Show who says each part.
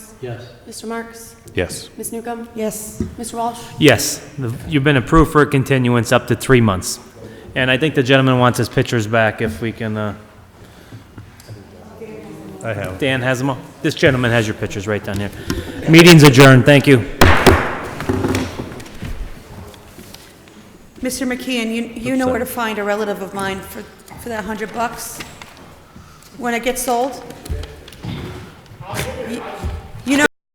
Speaker 1: Yes.
Speaker 2: Mr. Marks?
Speaker 3: Yes.
Speaker 2: Ms. Newcomb?
Speaker 4: Yes.
Speaker 2: Mr. Walsh?
Speaker 5: Yes, the- you've been approved for a continuance up to three months. And I think the gentleman wants his pictures back if we can, uh,
Speaker 3: I have.
Speaker 5: Dan has them all. This gentleman has your pictures right down here. Meeting's adjourned, thank you.
Speaker 4: Mr. McKeon, you, you know where to find a relative of mine for, for that hundred bucks? When it gets sold?